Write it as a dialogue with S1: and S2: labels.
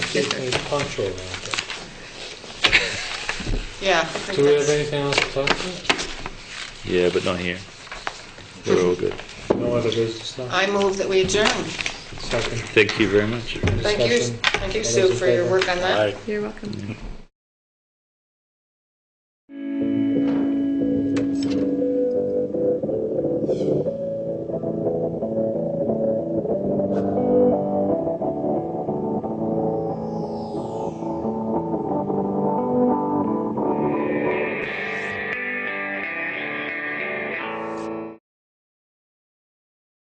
S1: get any punch around it.
S2: Yeah. I think
S1: Do we have
S2: that's-
S1: anything else to talk about?
S3: Yeah, but not here. We're all good.
S1: No other business now?
S2: I move that we adjourn.
S1: Second.
S3: Thank you very much.
S2: Thank you,
S1: discussion?
S2: thank you,
S1: All
S2: Sue,
S1: those in
S2: for your
S1: favor?
S2: work on that.
S4: You're welcome.